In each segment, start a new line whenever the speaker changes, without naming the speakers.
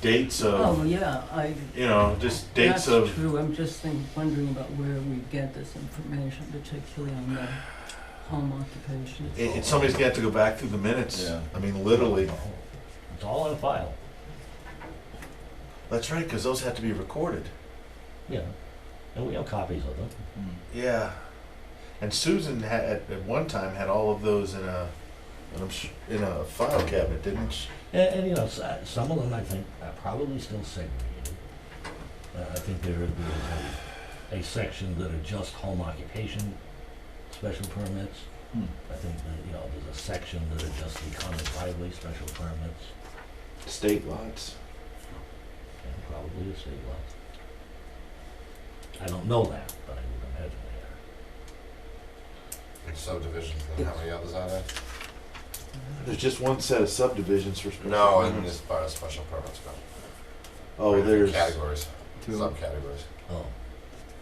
dates of,
Oh, yeah, I,
you know, just
that's
dates of
true, I'm just think, wondering about where we get this information, particularly on the home occupation.
And, and somebody's got to go back through the minutes.
Yeah.
I mean, literally.
It's all in a file.
That's right, because those had to be recorded.
Yeah. And we have copies of them.
Yeah. And Susan had at, at one time had all of those in a in a, sh- in a file cabinet, didn't she?
And, and you know, s- uh, some of them I think are probably still segregated. Uh, I think there is a, a section that are just home occupation special permits.
Hmm.
I think that, you know, there's a section that are just the common driveway special permits,
State lots.
and probably a state lot. I don't know that, but I would imagine they
subdivisions, then how many others are there?
There's just one set of subdivisions for special
No, and
permits.
as far as special permits go.
Oh, there's
Categories,
Two,
subcategories.
are. Oh,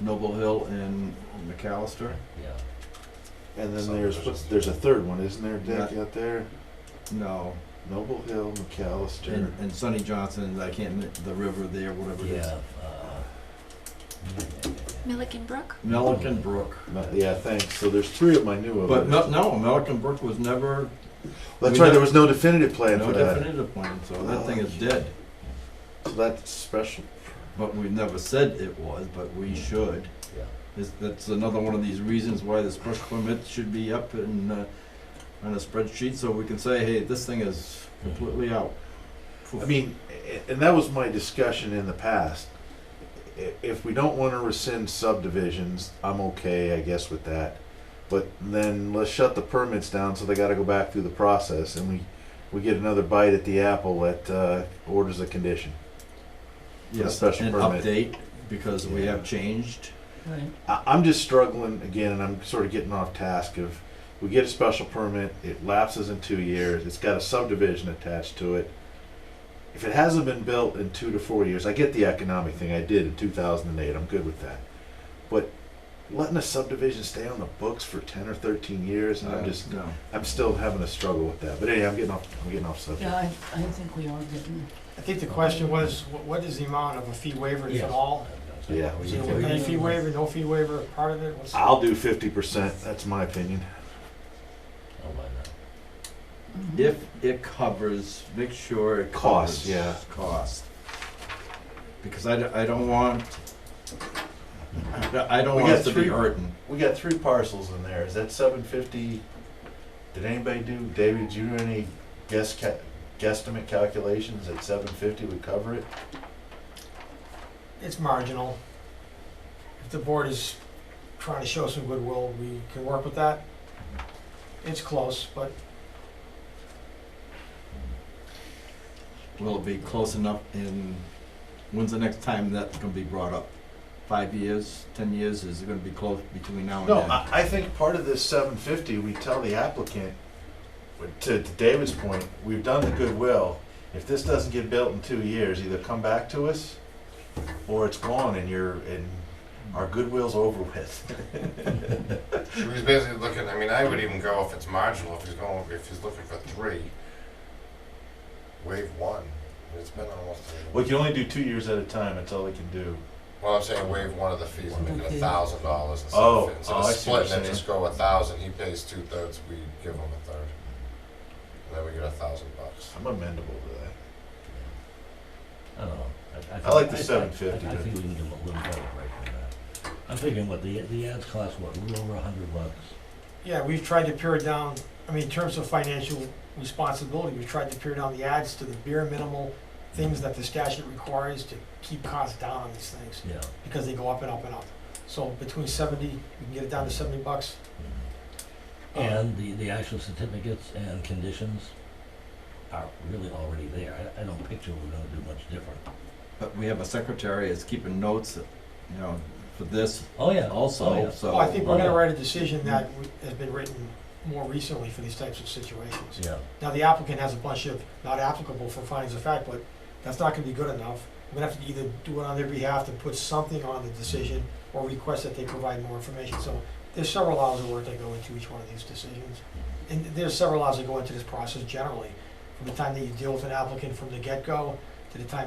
Noble Hill and McAllister?
yeah.
and then there's what's,
subdivisions.
there's a third one, isn't there, Dick,
Not-
out there?
No.
Noble Hill, McAllister.
And, and Sonny Johnson, I can't, mi- the river there, whatever it is.
Yeah. uh, yeah, yeah, yeah,
Milliken Brook?
Melican Brook.
No, yeah, thanks. So there's three of my new of
But
it.
no, no, Melican Brook was never,
That's
we
right.
don't-
There was no definitive plan
no
for that. Oh,
definitive plan, so that thing is dead.
So that's special.
But we never said it was, but we should.
yeah.
Is, that's another one of these reasons why the special permit should be up in, uh, on a spreadsheet, so we can say, hey, this thing is completely out.
Hmm. I mean, a- and that was my discussion in the past. I- If we don't want to rescind subdivisions, I'm okay, I guess, with that. But then let's shut the permits down so they got to go back through the process, and we we get another bite at the apple at uh, orders of condition.
Yeah,
special
and
permit.
update, because we
Yeah.
have changed.
Right,
I, I'm just struggling again, and I'm sort of getting off task. Of we get a special permit, it lapses in two years. It's got a subdivision attached to it. If it hasn't been built in two to four years, I get the economic thing. I did in 2008. I'm good with that. But letting a subdivision stay on the books for 10 or 13 years, and I'm
Uh,
just,
No.
I'm still having a struggle with that. But anyway, I'm getting off, I'm getting off subject.
yeah, I, I think we are getting,
I think the question was, wh- what is the amount of a fee waiver, if
Yes.
at all?
Yeah.
We
Is it
need
a
to-
any fee waiver, no fee waiver, part of it? What's-
I'll do 50%. That's my opinion.
Oh, why not?
Mm-hmm.
If it covers, make sure it
Cost,
covers
yeah.
cost. Because I, d- I don't want, I don't
We
want
got
us to be
three-
hurting.
We got three parcels in there. Is that seven fifty? Did anybody do, David, did you do any guess ca- guesstimate calculations at seven fifty would cover it?
It's marginal. If the board is trying to show some goodwill, we can work with that. It's close, but
Will it be close enough in, when's the next time that's gonna be brought up? Five years, ten years, is it gonna be close between now and
No,
then?
I, I think part of this seven fifty, we tell the applicant, but to, to David's point, we've done the goodwill. If this doesn't get built in two years, either come back to us or it's gone and you're, and our goodwill's over with.
He was basically looking, I mean, I would even go if it's marginal, if he's going, if he's looking for three, wave one. It's been almost,
We can only do two years at a time. That's all they can do.
well, I'm saying wave one of the fees, and make it a
Okay.
thousand dollars instead
Oh,
of, instead
oh,
of
I see what
splitting it,
you're
just go a thousand, he pays two thirds, we give him a third. And then we get a thousand bucks.
I'm amendable to that.
I don't know. I-
I like the
think-
750,
I- I
but-
think we can give a little better break than that. I'm thinking what, the, the ads cost, what, a little over a hundred bucks?
yeah, we've tried to pare down, I mean, in terms of financial responsibility, we've tried to pare down the ads to the bare minimal things that the statute requires to keep costs down on these things,
Yeah.
because they go up and up and up. So between seventy, we can get it down to seventy bucks.
Mhm. And the, the actual certificates and conditions are really already there. I, I don't picture we're gonna do much different.
But we have a secretary that's keeping notes, you know, for this
Oh, yeah. Oh,
also,
yeah.
so.
Well, I think we're gonna write a decision that w- has been written more recently for these types of situations.
Yeah.
Now, the applicant has a bunch of not applicable for findings of fact, but that's not gonna be good enough. We're gonna have to either do it on their behalf to put something on the decision or request that they provide more information. So there's several hours of work that go into each one of these decisions. And there's several hours that go into this process generally, from the time that you deal with an applicant from the get-go to the time